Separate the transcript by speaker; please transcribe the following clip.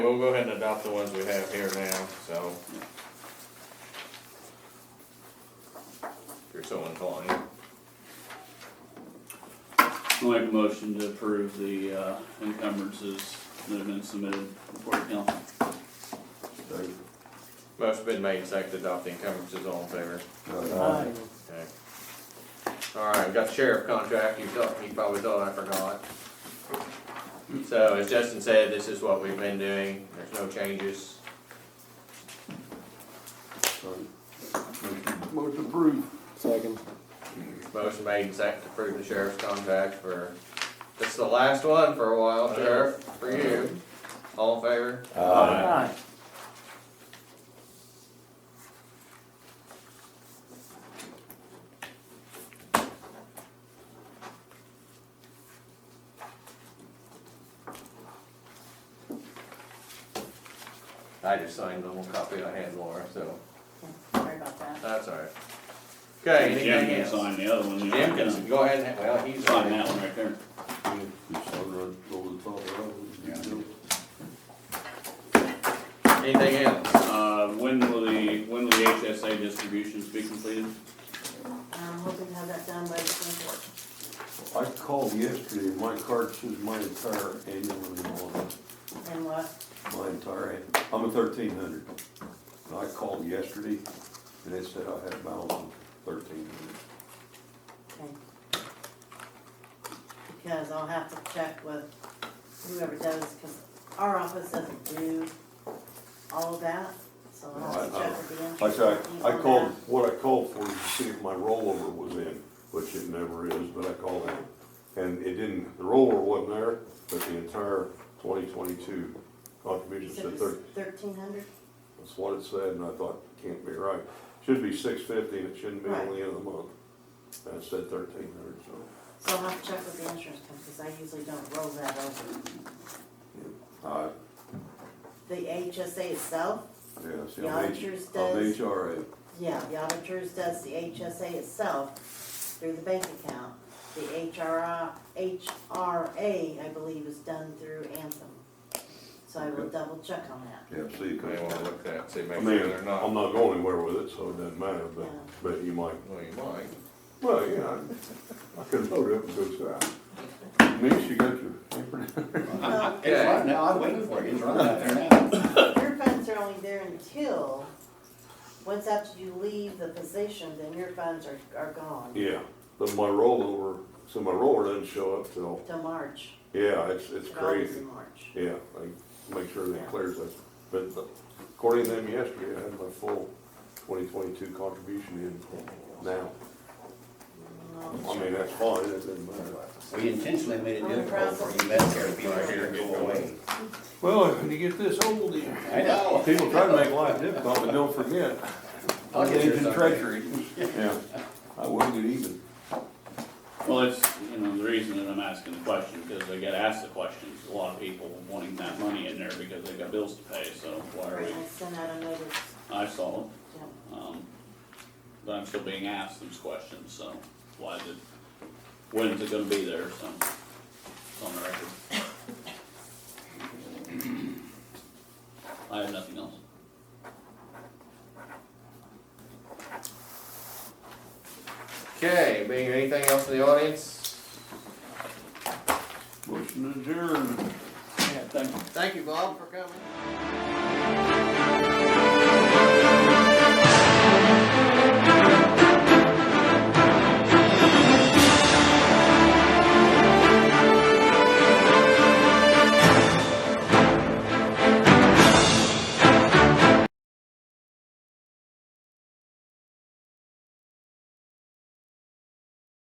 Speaker 1: we'll go ahead and adopt the ones we have here now, so. If you're so inclined.
Speaker 2: I'll make a motion to approve the uh, encumbrances that have been submitted before the council.
Speaker 3: Second.
Speaker 1: Motion been made, and seconded, to adopt the encumbrances, all in favor?
Speaker 3: Uh,
Speaker 1: Okay. Alright, we got the sheriff contract, you thought, you probably thought I forgot. So as Justin said, this is what we've been doing, there's no changes.
Speaker 3: sorry. Motion approved.
Speaker 4: Second.
Speaker 1: Motion made and seconded to approve the sheriff's contract for, this is the last one for a while, sheriff, for you. All in favor?
Speaker 4: Aye.
Speaker 1: I just signed the little copy I had, Laura, so
Speaker 5: Sorry about that.
Speaker 1: that's alright. Okay,
Speaker 2: Jim
Speaker 1: anything
Speaker 2: can
Speaker 1: else?
Speaker 2: sign the other one, you know,
Speaker 1: Jim
Speaker 2: I
Speaker 1: can
Speaker 2: can
Speaker 1: go ahead and, well, he's.
Speaker 2: sign that one right there.
Speaker 3: Just run over the top of that one.
Speaker 1: Anything else?
Speaker 2: Uh, When will the, when will the HSA distributions be completed?
Speaker 5: I'm hoping to Um, have that done by the twenty-fourth.
Speaker 3: I called yesterday, my card says my entire annual renewal,
Speaker 5: And what,
Speaker 3: my entire, an- I'm a thirteen hundred. And I called yesterday, and it said I had a balance of thirteen hundred.
Speaker 5: okay. Because I'll have to check with whoever does, because our office doesn't do all of that, so I'll have to check with the
Speaker 3: I
Speaker 5: insurance.
Speaker 3: said,
Speaker 5: company
Speaker 3: I
Speaker 5: on
Speaker 3: called, what I called for, to see if my rollover was in, which it never is, but I called in. And it didn't, the rollover wasn't there, but the entire twenty twenty-two
Speaker 5: that.
Speaker 3: contribution
Speaker 5: So
Speaker 3: said
Speaker 5: it's
Speaker 3: thirteen.
Speaker 5: thirteen hundred?
Speaker 3: That's what it said, and I thought, can't be right. Should be six fifty, and it shouldn't be
Speaker 5: Right.
Speaker 3: only in the month. And it said thirteen hundred, so.
Speaker 5: So I'll have to check with the insurance company, because I usually don't roll that over.
Speaker 3: I,
Speaker 5: The HSA itself,
Speaker 3: yeah, see,
Speaker 5: The
Speaker 3: I'm H,
Speaker 5: auditors
Speaker 3: I'm
Speaker 5: does.
Speaker 3: HRA.
Speaker 5: Yeah, the auditors does the HSA itself through the bank account. The HRA, HRA, I believe, is done through Anthem. So I will
Speaker 3: Okay.
Speaker 5: double check on that.
Speaker 3: Yeah, see,
Speaker 1: You may
Speaker 3: cause,
Speaker 1: wanna look that, see,
Speaker 3: I
Speaker 1: make
Speaker 3: mean,
Speaker 1: sure they're
Speaker 3: I'm
Speaker 1: not.
Speaker 3: not going anywhere with it, so it doesn't matter, but,
Speaker 5: Yeah.
Speaker 3: but you might,
Speaker 1: Well, you might.
Speaker 3: well, you know, I could load up and go south. Denise, you got your paper?
Speaker 5: Well,
Speaker 1: Okay.
Speaker 6: now, I'm waiting for you, it's running out there now.
Speaker 5: your funds are only there until, once after you leave the position, then your funds are, are gone
Speaker 3: Yeah, but my rollover, so my roller doesn't show up till,
Speaker 5: till March.
Speaker 3: yeah, it's, it's
Speaker 5: It always
Speaker 3: crazy.
Speaker 5: in March.
Speaker 3: Yeah, I make sure that clears it, but according to them yesterday, I had my full twenty twenty-two contribution in now. I mean, that's fine, it doesn't matter.
Speaker 6: We intentionally made it difficult for you Medicare people to go away.
Speaker 3: Well, when you get this old, you-
Speaker 6: I know.
Speaker 3: people try to make life difficult, but don't forget,
Speaker 6: I'll get you
Speaker 3: Agent
Speaker 6: something.
Speaker 3: treasury. Yeah, I will get even.
Speaker 2: Well, it's, you know, the reason that I'm asking the question, because I get asked the questions, a lot of people wanting that money in there because they got bills to pay, so why are
Speaker 5: Right,
Speaker 2: we?
Speaker 5: I sent out a notice,
Speaker 2: I saw it,
Speaker 5: yeah.
Speaker 2: um, but I'm still being asked these questions, so why did, when's it gonna be there, so, it's on the record. I have nothing else.
Speaker 1: Okay, being anything else in the audience?
Speaker 3: Motion adjourned.
Speaker 2: Yeah, thank you.
Speaker 1: Thank you, Bob, for coming.